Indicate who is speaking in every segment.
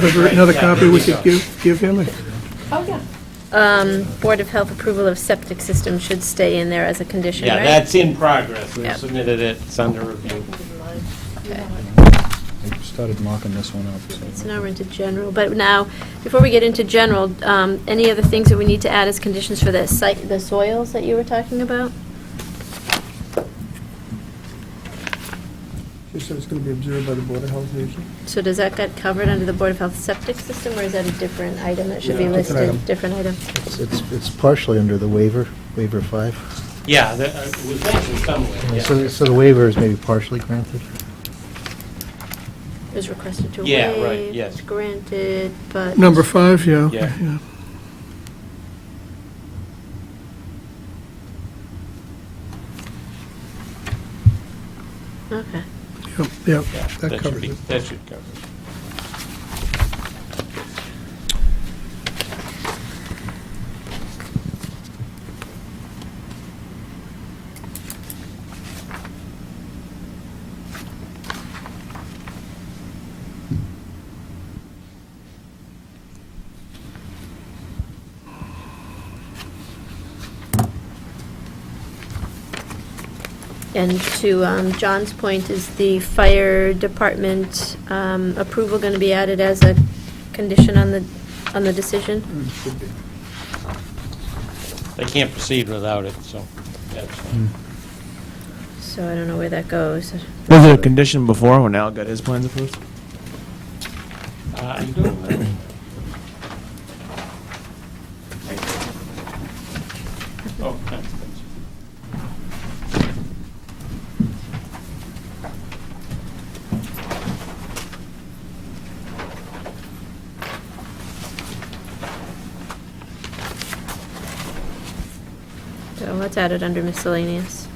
Speaker 1: Have you written another copy we could give, give him?
Speaker 2: Oh, yeah.
Speaker 3: Um, Board of Health approval of septic system should stay in there as a condition,
Speaker 4: Yeah,
Speaker 3: right?
Speaker 4: that's in progress. We've
Speaker 3: Yep.
Speaker 4: submitted it, it's under review.
Speaker 5: I started mocking this one up. so-
Speaker 3: So now we're into general, but now, before we get into general, um, any other things that we need to add as conditions for the site, the soils that you were talking about?
Speaker 1: She said it's going to be observed by the Board of Health agent.
Speaker 3: So does that get covered under the Board of Health septic system, or is that a different item that should be
Speaker 1: No, different
Speaker 3: listed?
Speaker 1: item.
Speaker 3: Different item.
Speaker 6: It's- It's it's partially under the waiver, waiver five.
Speaker 4: Yeah, that uh, it was mentioned somewhere,
Speaker 6: So
Speaker 4: yeah.
Speaker 6: so the waiver is maybe partially granted.
Speaker 3: It was requested to waive.
Speaker 4: Yeah, right, yes.
Speaker 3: Granted, but.
Speaker 1: Number five, yeah. okay,
Speaker 4: Yeah.
Speaker 3: Okay.
Speaker 1: Yep, yep,
Speaker 4: Yeah,
Speaker 1: that
Speaker 4: should
Speaker 1: covers
Speaker 4: be-
Speaker 1: it.
Speaker 4: That should cover it.
Speaker 3: And to um, John's point, is the fire department um, approval going to be added as a condition on the, on the decision?
Speaker 4: They can't proceed without it, so that's
Speaker 5: Hmm.
Speaker 1: Hmm.
Speaker 4: fine.
Speaker 3: So I don't know where that goes.
Speaker 7: Was it a condition before when Al got his plans approved?
Speaker 4: Uh, I don't know. Oh, that's-
Speaker 3: So let's add it under miscellaneous.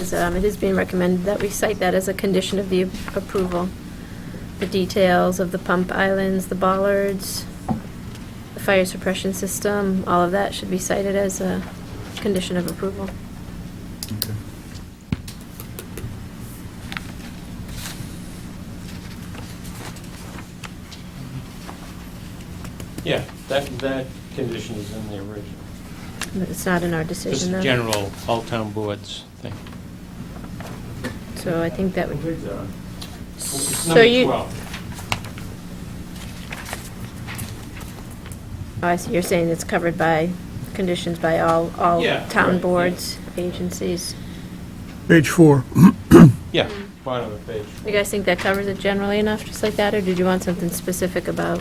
Speaker 3: Is, um, It is being recommended that we cite that as a condition of the approval. The details of the pump islands, the bollards, the fire suppression system, all of that should be cited as a condition of approval.
Speaker 5: Okay.
Speaker 4: Yeah, that, that condition is in the original.
Speaker 3: But it's not in our
Speaker 4: Just
Speaker 3: decision, though.
Speaker 4: the general all-town boards thing.
Speaker 3: So I think that would,
Speaker 4: It's
Speaker 3: so
Speaker 4: number
Speaker 3: you, oh,
Speaker 4: 12.
Speaker 3: Oh, I see, you're saying it's covered by, conditions by all, all
Speaker 4: Yeah, right,
Speaker 3: town
Speaker 4: yeah.
Speaker 3: boards, agencies.
Speaker 1: Page four.
Speaker 4: Yeah,
Speaker 3: Hmm.
Speaker 4: bottom of the page.
Speaker 3: You guys think that covers it generally enough, just like that, or did you want something specific about?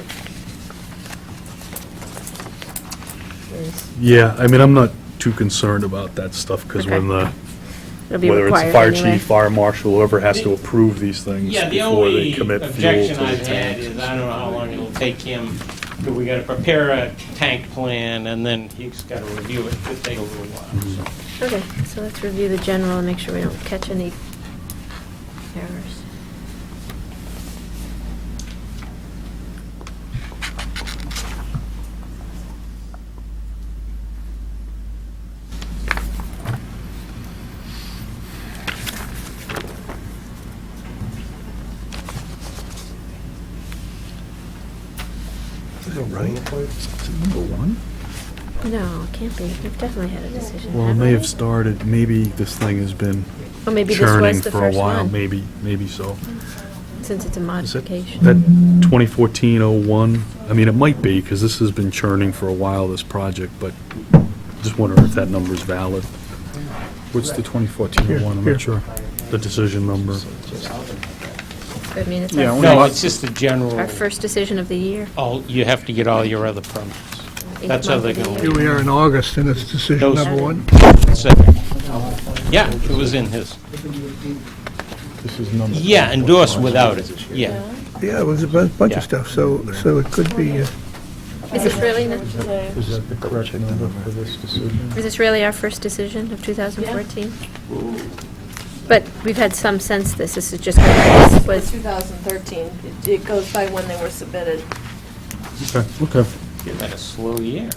Speaker 3: Is-
Speaker 8: Yeah, I mean, I'm not too concerned about that stuff, because when the,
Speaker 3: It'll be
Speaker 8: whether it's the fire
Speaker 3: required anyway.
Speaker 8: chief, fire marshal, whoever has to approve these things
Speaker 4: Yeah, the
Speaker 8: before they
Speaker 4: only
Speaker 8: commit fuel to
Speaker 4: objection
Speaker 8: the
Speaker 4: I've had
Speaker 8: tanks.
Speaker 4: is, I don't know how long it'll take him, but we gotta prepare a tank plan, and then he's gotta review it, it'll take a little while, so.
Speaker 3: Okay, so let's review the general and make sure we don't catch any errors.
Speaker 5: Is that right? Is it number one?
Speaker 3: No, it can't be, we've definitely had a decision,
Speaker 8: Well, it
Speaker 3: haven't
Speaker 8: may have
Speaker 3: we?
Speaker 8: started, maybe this thing has been
Speaker 3: Or maybe this
Speaker 8: churning
Speaker 3: was the
Speaker 8: for a
Speaker 3: first
Speaker 8: while,
Speaker 3: one,
Speaker 8: maybe, maybe so.
Speaker 3: since it's a
Speaker 8: Is it
Speaker 3: modification.
Speaker 8: that 2014-01? I mean, it might be, because this has been churning for a while, this project, but just wondering if that number's valid.
Speaker 5: What's the 2014-01? I'm
Speaker 1: Here, here.
Speaker 5: not sure.
Speaker 8: The decision number.
Speaker 3: I mean, it's
Speaker 5: Yeah,
Speaker 3: our
Speaker 5: only
Speaker 4: No,
Speaker 5: lot-
Speaker 4: it's just the general,
Speaker 3: Our first decision of the year.
Speaker 4: all, you have to get all your other permits.
Speaker 3: eighth
Speaker 4: That's how
Speaker 3: month
Speaker 4: they're
Speaker 3: of the
Speaker 4: gonna
Speaker 3: year.
Speaker 1: Here we are in August, and it's decision
Speaker 4: Those-
Speaker 1: number one.
Speaker 4: So- Yeah, it was in his,
Speaker 5: This is number.
Speaker 4: yeah, endorsed without it, yeah.
Speaker 1: Yeah, it was a bu- bunch
Speaker 4: Yeah.
Speaker 1: of stuff, so, so it could be, uh,
Speaker 3: Is this really, not-
Speaker 5: Is that the correct number for this decision?
Speaker 3: is this really our first decision of 2014? But we've had some since this, this is just, this
Speaker 2: For
Speaker 3: was,
Speaker 2: 2013, It- it goes by when they were submitted.
Speaker 5: Okay, okay.
Speaker 4: You had a slow year.